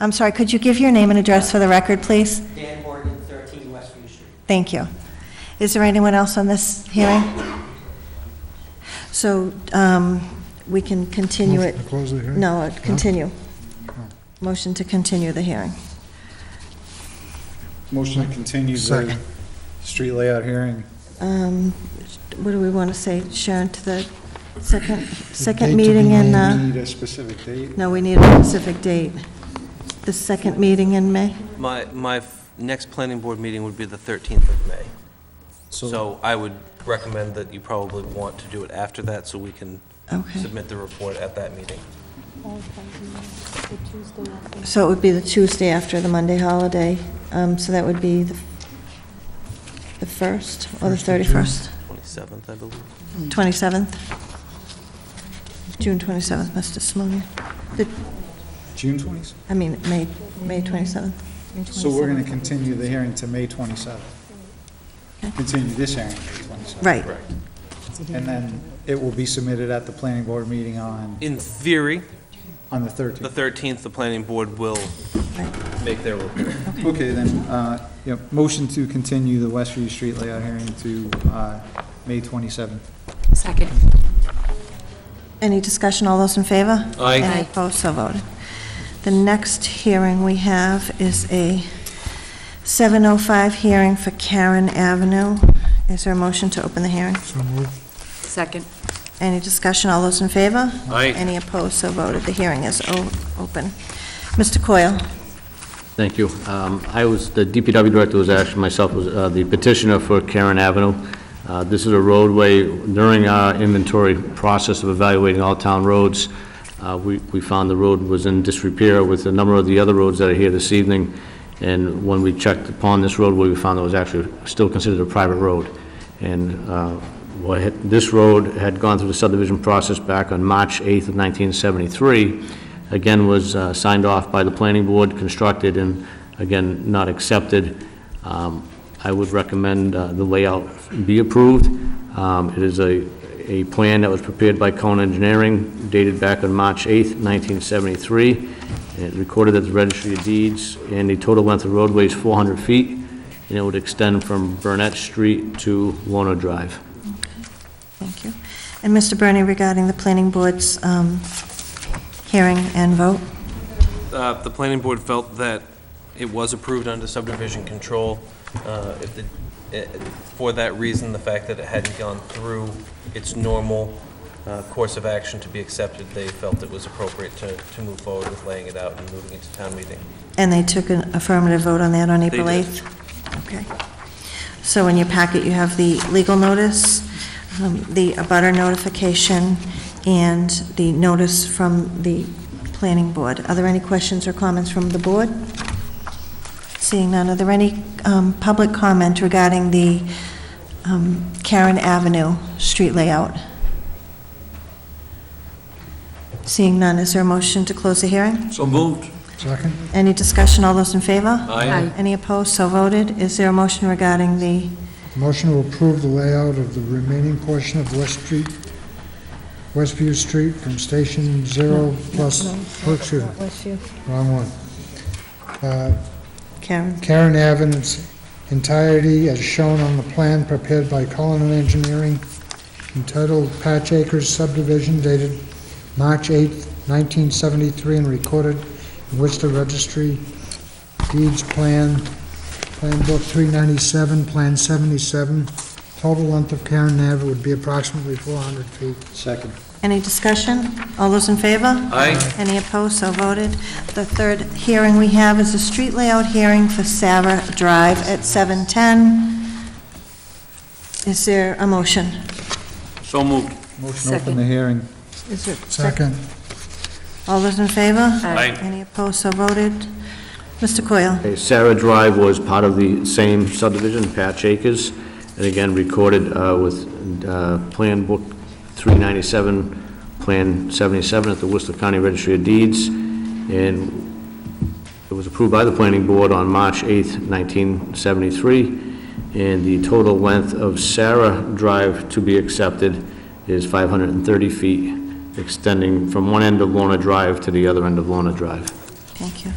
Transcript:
I'm sorry, could you give your name and address for the record, please? Dan Morgan, 13 Westview Street. Thank you. Is there anyone else on this hearing? So um, we can continue Motion it. to close the hearing? No, uh, continue. No. Motion to continue the hearing. Motion to continue the Second. street layout hearing. Um, What do we want to say, Sharon, to the second, second date to be meeting in, named. uh, Need a specific date? no, we need a specific date. The second meeting in May? My, my f- next planning board meeting would be the 13th of May. So I would recommend that you probably want to do it after that, so we can Okay. submit the report at that meeting. So it would be the Tuesday after the Monday holiday, um, so that would be the the 1st or the First of June. 31st? 27th, I believe. 27th? June 27th, Mr. Simonian. The- June 20th? I mean, May, May 27th. So we're going to continue the hearing to May 27th. Okay. Continue this hearing to May 27th. Right. And then it will be submitted at the planning board meeting on, In theory, on the the 13th. 13th, the planning board will Right. make their report. Okay, then, uh, yeah, motion to continue the Westview Street layout hearing to uh, May 27th. Second. Any discussion, all those in favor? Aye. Any Aye. opposed, so voted. The next hearing we have is a 7:05 hearing for Karen Avenue. Is there a motion to open the hearing? So moved. Second. Any discussion, all those in favor? Aye. Any opposed, so voted. The hearing is o- open. Mr. Coyle? Thank you. Um, I was, the DPW director was actually, myself was uh, the petitioner for Karen Avenue. Uh, This is a roadway, during our inventory process of evaluating all town roads, uh, we we found the road was in disrepair with a number of the other roads that are here this evening, and when we checked upon this roadway, we found it was actually still considered a private road. And uh, what had- this road had gone through the subdivision process back on March 8th of 1973, again, was uh, signed off by the planning board, constructed, and again, not accepted. Um, I would recommend uh, the layout be approved. Um, It is a, a plan that was prepared by Cone Engineering, dated back on March 8th, 1973. It recorded at the Registry of Deeds, and the total length of roadway is 400 feet and it would extend from Burnett Street to Lorna Drive. Thank you. And Mr. Bernie, regarding the planning board's um, hearing and vote? Uh, The planning board felt that it was approved under subdivision control. Uh, if the- eh, For that reason, the fact that it hadn't gone through its normal uh, course of action to be accepted, they felt it was appropriate to to move forward with laying it out and moving it to town meeting. And they took an affirmative vote on that on April did. 8th? Okay. So in your packet, you have the legal notice, um, the abutter notification, and the notice from the planning board. Are there any questions or comments from the board? Seeing none, are there any um, public comment regarding the um, Karen Avenue street layout? Seeing none, is there a motion to close the hearing? So moved. Second? Any discussion, all those in favor? Aye. Any opposed, so voted. Is there a motion regarding the, Motion to approve the layout of the remaining portion of West Street, Westview Street from Station Zero plus, oh, excuse me, wrong one. Uh, Karen? Karen Avenue's entirety as shown on the plan prepared by Cullinan Engineering entitled Patch Acres subdivision dated March 8, 1973 and recorded in Worcester Registry Deeds Plan, Plan Book 397, Plan 77. Total length of Karen Ave would be approximately 400 feet. Second. Any discussion? All those in favor? Aye. Any opposed, so voted. The third hearing we have is a street layout hearing for Sarah Drive at 7:10. Is there a motion? So moved. Motion to open Second. the hearing. Is there? Second, All those in favor? Aye. Any opposed, so voted. Mr. Coyle? Sarah Drive was part of the same subdivision, Patch Acres, and again, recorded uh, with uh, Plan Book 397, Plan 77 at the Worcester County Registry of Deeds, and it was approved by the planning board on March 8th, 1973, and the total length of Sarah Drive to be accepted is 530 feet, extending from one end of Lorna Drive to the other end of Lorna Drive. Thank you.